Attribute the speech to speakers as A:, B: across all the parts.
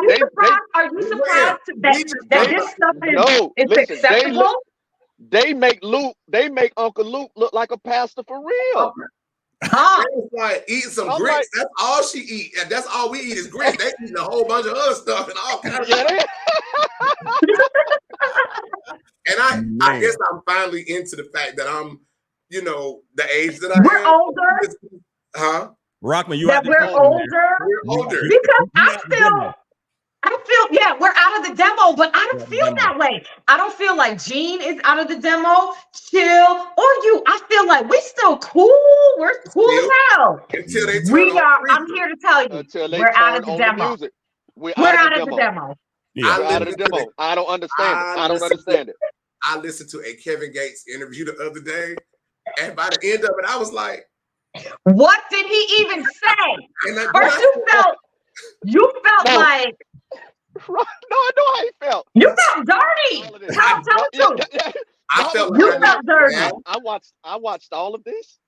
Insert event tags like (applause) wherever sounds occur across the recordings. A: Are you
B: They- they-
A: surprised? Are you surprised that,
C: Jesus,
A: that
C: they-
A: this stuff is,
B: No,
A: is
B: listen, they
A: acceptable?
B: look, they make Luke, they make Uncle Luke look like a pastor for real.
A: Huh?
C: It was like eat some
B: I'm
C: grits.
B: like-
C: that's all she eat. And that's all we eat is grits. They eat a whole bunch of other stuff and all kinds of
B: Yeah, they-
C: And I, I
D: Man.
C: guess I'm finally into the fact that I'm, you know, the age that I
A: We're
C: am.
A: older.
C: Huh?
D: Rockman, you
A: That
D: out the
A: we're
D: demo now.
A: older.
C: We're
D: You-
C: older.
A: Because
D: you
A: I
D: out the
A: feel
D: demo.
A: I feel yeah, we're out of the demo, but I
D: Yeah,
A: don't feel
D: demo.
A: that way. I don't feel like Gene is out of the demo, chill, or you. I feel like we still cool. We're cool as
C: Still
A: hell.
C: Until they turn
A: We
C: on
A: are.
C: freezer.
A: I'm here to tell you,
B: until they
A: we're
B: turn
A: out of the
B: on
A: demo.
B: the music. We're,
A: we're
B: Uh, out, of
A: out of the demo.
D: Yeah.
C: I
B: We're out of the
C: listened to
B: demo. I don't understand it.
C: I
B: I don't
C: listen to
B: understand it.
C: I listened to a Kevin Gates interview the other day, and by the end of it, I was like,
A: What did he even say?
C: and I,
A: First, you felt you felt
B: No.
A: like
B: Right. No, I know how he felt.
A: you felt
B: All of
A: dirty.
B: this.
A: Tell, tell the
B: Yeah,
A: truth.
B: yeah, yeah.
C: I felt like
A: You
C: I needed
A: felt dirty.
C: Yeah.
B: I watched I watched all of this.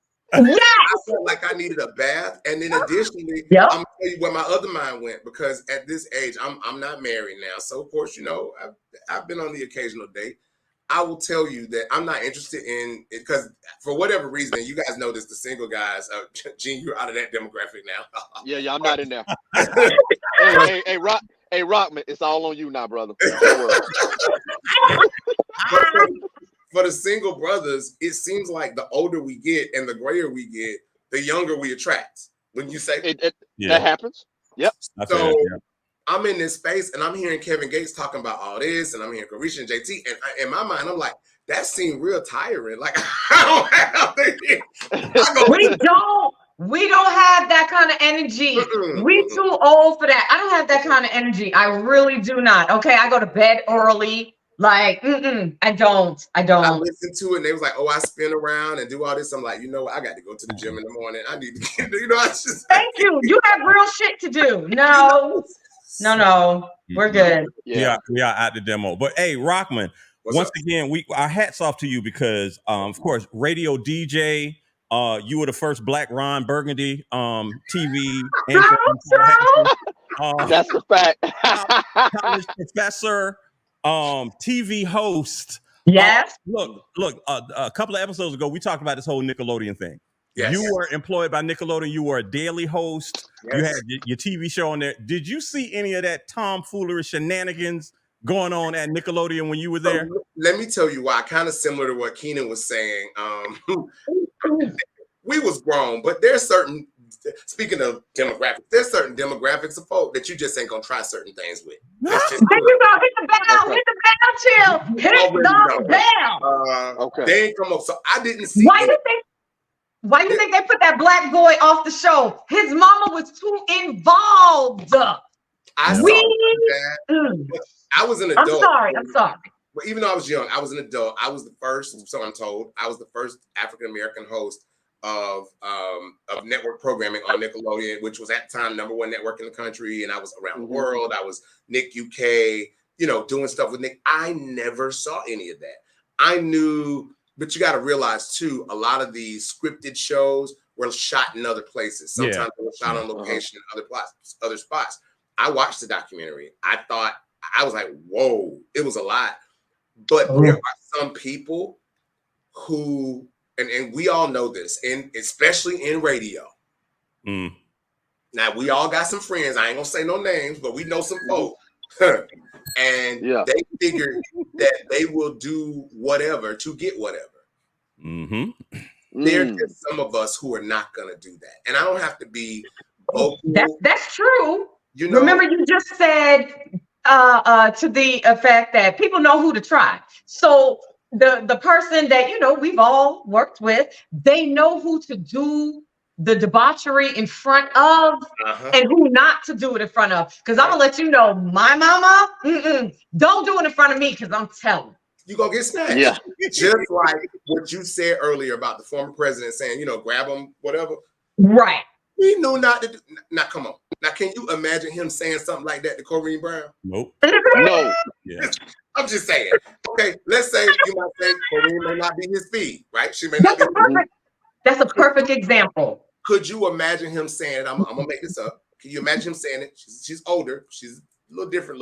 A: Yes.
C: (laughs) I felt like I needed a bath. And then additionally,
A: Yep.
C: I'm gonna tell you where my other mind went because at this age, I'm I'm not married now. So of course, you know, I've, I've been on the occasional date. I will tell you that I'm not interested in it because for whatever reason, and you guys know this. The single guys, uh, (laughs) Gene, you're out of that demographic now. (laughs)
B: Yeah, yeah, I'm not in there. (laughs) hey, hey, hey, Rock, hey, Rockman, it's all on you now, brother. Don't (laughs) worry.
C: for the single brothers, it seems like the older we get and the grayer we get, the younger we attract. When you say
B: It, it,
D: Yeah.
B: That happens.
D: I feel
C: So-
D: that, yeah.
C: I'm in this space and I'm hearing Kevin Gates talking about all this, and I'm hearing Carisha and JT, and I, in my mind, I'm like, that seemed real tiring. Like, (laughs) I don't have the- I go,
A: we don't we don't have that kind of energy
C: Mm-mm.
A: we too old for that i don't have that kind of energy i really do not okay i go to bed early like mm-mm, i don't i
C: I
A: don't
C: listened to it, and they was like, oh, I spin around and do all this. I'm like, you know what? I got to go to the gym in the morning. I need to get, (laughs) you know, I just.
A: thank you you have real shit to do
C: (laughs)
A: no no no we're good
B: Yeah.
D: We, are, we are out the demo. But hey, Rockman,
C: What's
D: once
C: up?
D: again, we our hats off to you because, um, of course, radio DJ. Uh, you were the first Black Ron Burgundy um, TV
A: (laughs)
D: anchor.
A: so?
D: Uh,
B: That's the fact. (laughs)
D: college professor, um, TV host.
A: yes
D: Look, look. Uh, a couple of episodes ago, we talked about this whole Nickelodeon thing.
C: Yes.
D: You were employed by Nickelodeon. You were a daily host. You
C: Yes.
D: had y- your TV show on there. Did you see any of that tomfoolery shenanigans going on at Nickelodeon when you were there?
C: So, let me tell you why. Kind of similar to what Keenan was saying. Um, (laughs) we was grown, but there's certain. Speaking of demographics, there's certain demographics of folk that you just ain't gonna try certain things with. That's just
A: then you go hit the bell hit the bell chill hit
C: Already
A: the
C: know.
A: bell
C: uh,
B: okay.
C: they ain't come up. So I didn't see.
A: why
C: it.
A: do they why do you think they put that black boy off the show his mama was too involved
C: I saw
A: we
C: that.
A: Mm.
C: I was an
A: I'm
C: adult.
A: sorry. I'm sorry.
C: But even though I was young, I was an adult. I was the first, so I'm told, I was the first African American host of um of network programming on Nickelodeon, which was at the time number one network in the country. And I was around
B: Mhm.
C: the world. I was Nick UK, you know, doing stuff with Nick. I never saw any of that. I knew, but you got to realize too, a lot of these scripted shows were shot in other places.
D: Yeah.
C: Sometimes they were shot on
B: Uh-huh.
C: location in other plots, other spots. I watched the documentary. I thought I was like, whoa, it was a lot. But
B: Oh.
C: there are some people who, and, and we all know this, and especially in radio.
D: Mm.
C: Now we all got some friends. I ain't gonna say no names, but we know some folk. (laughs) and
B: Mm-hmm. Yeah.
C: they figured that they will do whatever to get whatever.
D: hmm
C: There
B: Mm.
C: are just some of us who are not gonna do that. And I don't have to be vocal.
A: That, that's true.
C: you know,
A: Remember, you just said uh, uh, to the effect that people know who to try. So the the person that you know we've all worked with, they know who to do the debauchery in front of
C: uh-huh.
A: and who not to do it in front of. Because I'm gonna let you know, my mama, mm-mm, don't do it in front of me. Because I'm telling.
C: you gonna get snatched.
B: Yeah.
C: Just like what you said earlier about the former president saying, you know, grab them, whatever.
A: (laughs) Right.
C: We knew not to do now. Come on. Now can you imagine him saying something like that to Corrine Brown?
D: Nope.
B: No.
D: Yeah.
C: I'm just saying. Okay, let's say you might say Corrine may not be his speed, right? She may not
A: That's
C: be.
A: a perfect. That's a perfect example.
C: Could you imagine him saying, I'm, I'm gonna make this up. Can you imagine him saying it? She's, she's older. She's a little different